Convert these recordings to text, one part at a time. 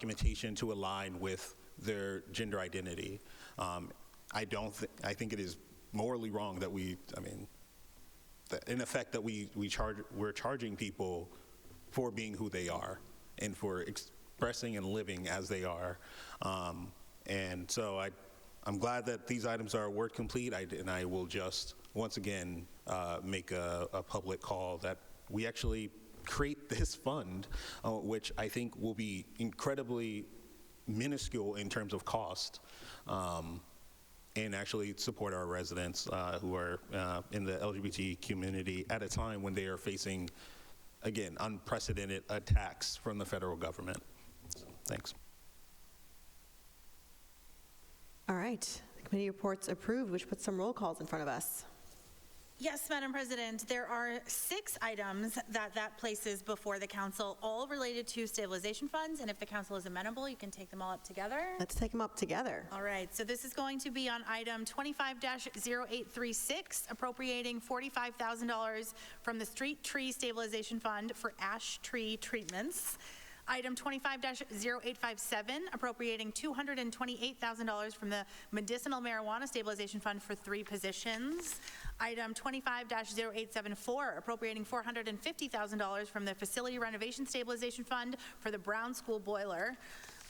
documentation to align with their gender identity. Um, I don't, thi- I think it is morally wrong that we, I mean, that in effect, that we, we charge, we're charging people for being who they are and for expressing and living as they are. Um, and so I, I'm glad that these items are word complete, I, and I will just, once again, uh, make a, a public call that we actually create this fund, uh, which I think will be incredibly minuscule in terms of cost. Um, and actually support our residents uh, who are uh, in the LGBT community at a time when they are facing, again, unprecedented attacks from the federal government. So, Thanks. All right, the committee reports approved, which puts some roll calls in front of us. Yes, Madam President, there are six items that that places before the council, all related to stabilization funds, and if the council is amenable, you can take them all up together. Let's take them up together. All right, so this is going to be on item 25-0836, appropriating $45,000 from the Street Tree Stabilization Fund for ash tree treatments. Item 25-0857, appropriating $228,000 from the Medicinal Marijuana Stabilization Fund for three positions. Item 25-0874, appropriating $450,000 from the Facility Renovation Stabilization Fund for the Brown School boiler.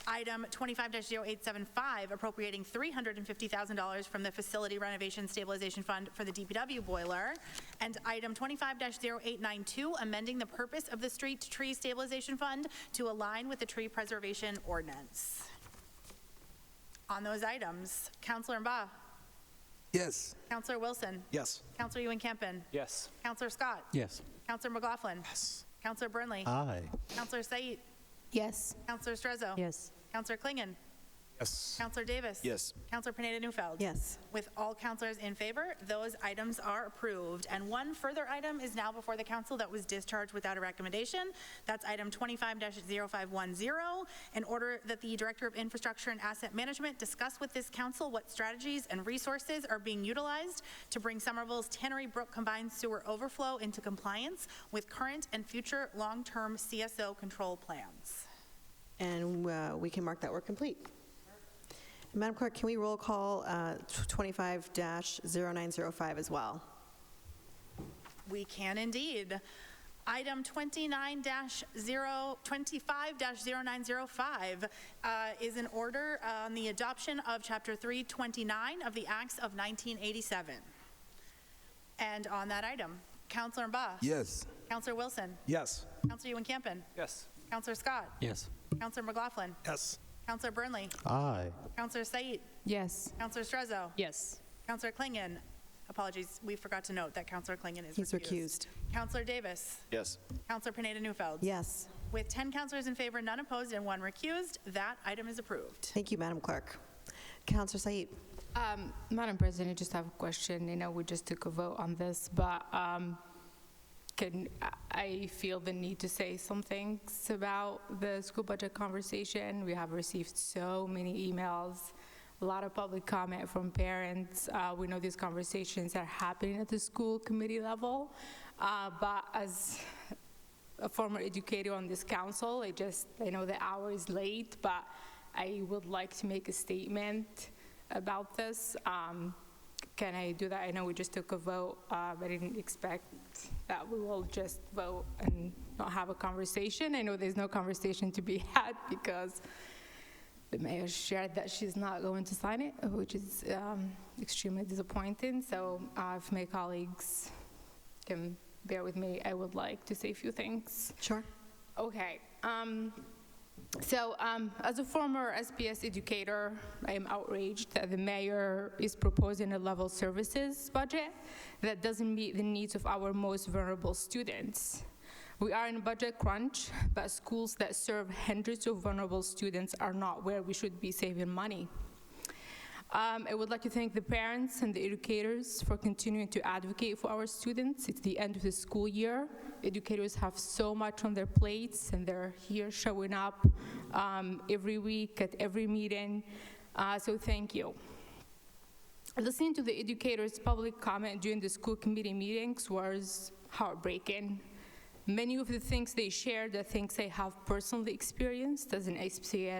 Item 25-0875, appropriating $350,000 from the Facility Renovation Stabilization Fund for the DPW boiler. And item 25-0892, amending the purpose of the Street Tree Stabilization Fund to align with the tree preservation ordinance. On those items, Counselor Mba, Yes. Counselor Wilson, Yes. Counselor Ewan-Campen, Yes. Counselor Scott. Yes. Counselor McLaughlin. Yes. Counselor Burnley. Aye. Counselor Said. Yes. Counselor Strezzo. Yes. Counselor Klingon. Yes. Counselor Davis. Yes. Counselor Pineda Newfeld. Yes. With all counselors in favor, those items are approved. And one further item is now before the council that was discharged without a recommendation. That's item 25-0510, in order that the Director of Infrastructure and Asset Management discuss with this council what strategies and resources are being utilized to bring Somerville's Tannery Brook Combined Sewer Overflow into compliance with current and future long-term CSO control plans. And uh, we can mark that work complete. Madam Clerk, can we roll call uh, 25-0905 as well? We can indeed. Item 29 0, 25-0905 uh, is an order on the adoption of Chapter 329 of the Acts of 1987. And on that item, Counselor Mba. Yes. Counselor Wilson. Yes. Counselor Ewan-Campen. Yes. Counselor Scott. Yes. Counselor McLaughlin. Yes. Counselor Burnley. Aye. Counselor Said. Yes. Counselor Strezzo. Yes. Counselor Klingon. Apologies, we forgot to note that Counselor Klingon is He's recused. recused. Counselor Davis. Yes. Counselor Pineda Newfeld. Yes. With 10 counselors in favor, none opposed, and one recused, that item is approved. Thank you, Madam Clerk. Counselor Said, Um, Madam President, I just have a question. You know, we just took a vote on this, but um, can, I- I feel the need to say some things about the school budget conversation. We have received so many emails, a lot of public comment from parents. Uh, We know these conversations are happening at the school committee level, uh, but as a former educator on this council. I just, I know the hour is late, but I would like to make a statement about this. Um, Can I do that? I know we just took a vote, uh, but I didn't expect that we will just vote and not have a conversation. I know there's no conversation to be had because the mayor shared that she's not going to sign it, which is um, extremely disappointing. So uh, if my colleagues can bear with me, I would like to say a few things. sure? Okay. Um, so, um, as a former SPS educator, I am outraged that the mayor is proposing a level services budget that doesn't meet the needs of our most vulnerable students. We are in a budget crunch, but schools that serve hundreds of vulnerable students are not where we should be saving money. Um, I would like to thank the parents and the educators for continuing to advocate for our students. It's the end of the school year. Educators have so much on their plates, and they're here showing up um, every week at every meeting. Uh, so, thank you. Listening to the educators' public comment during the school committee meetings was heartbreaking. Many of the things they shared are things I have personally experienced as an SPS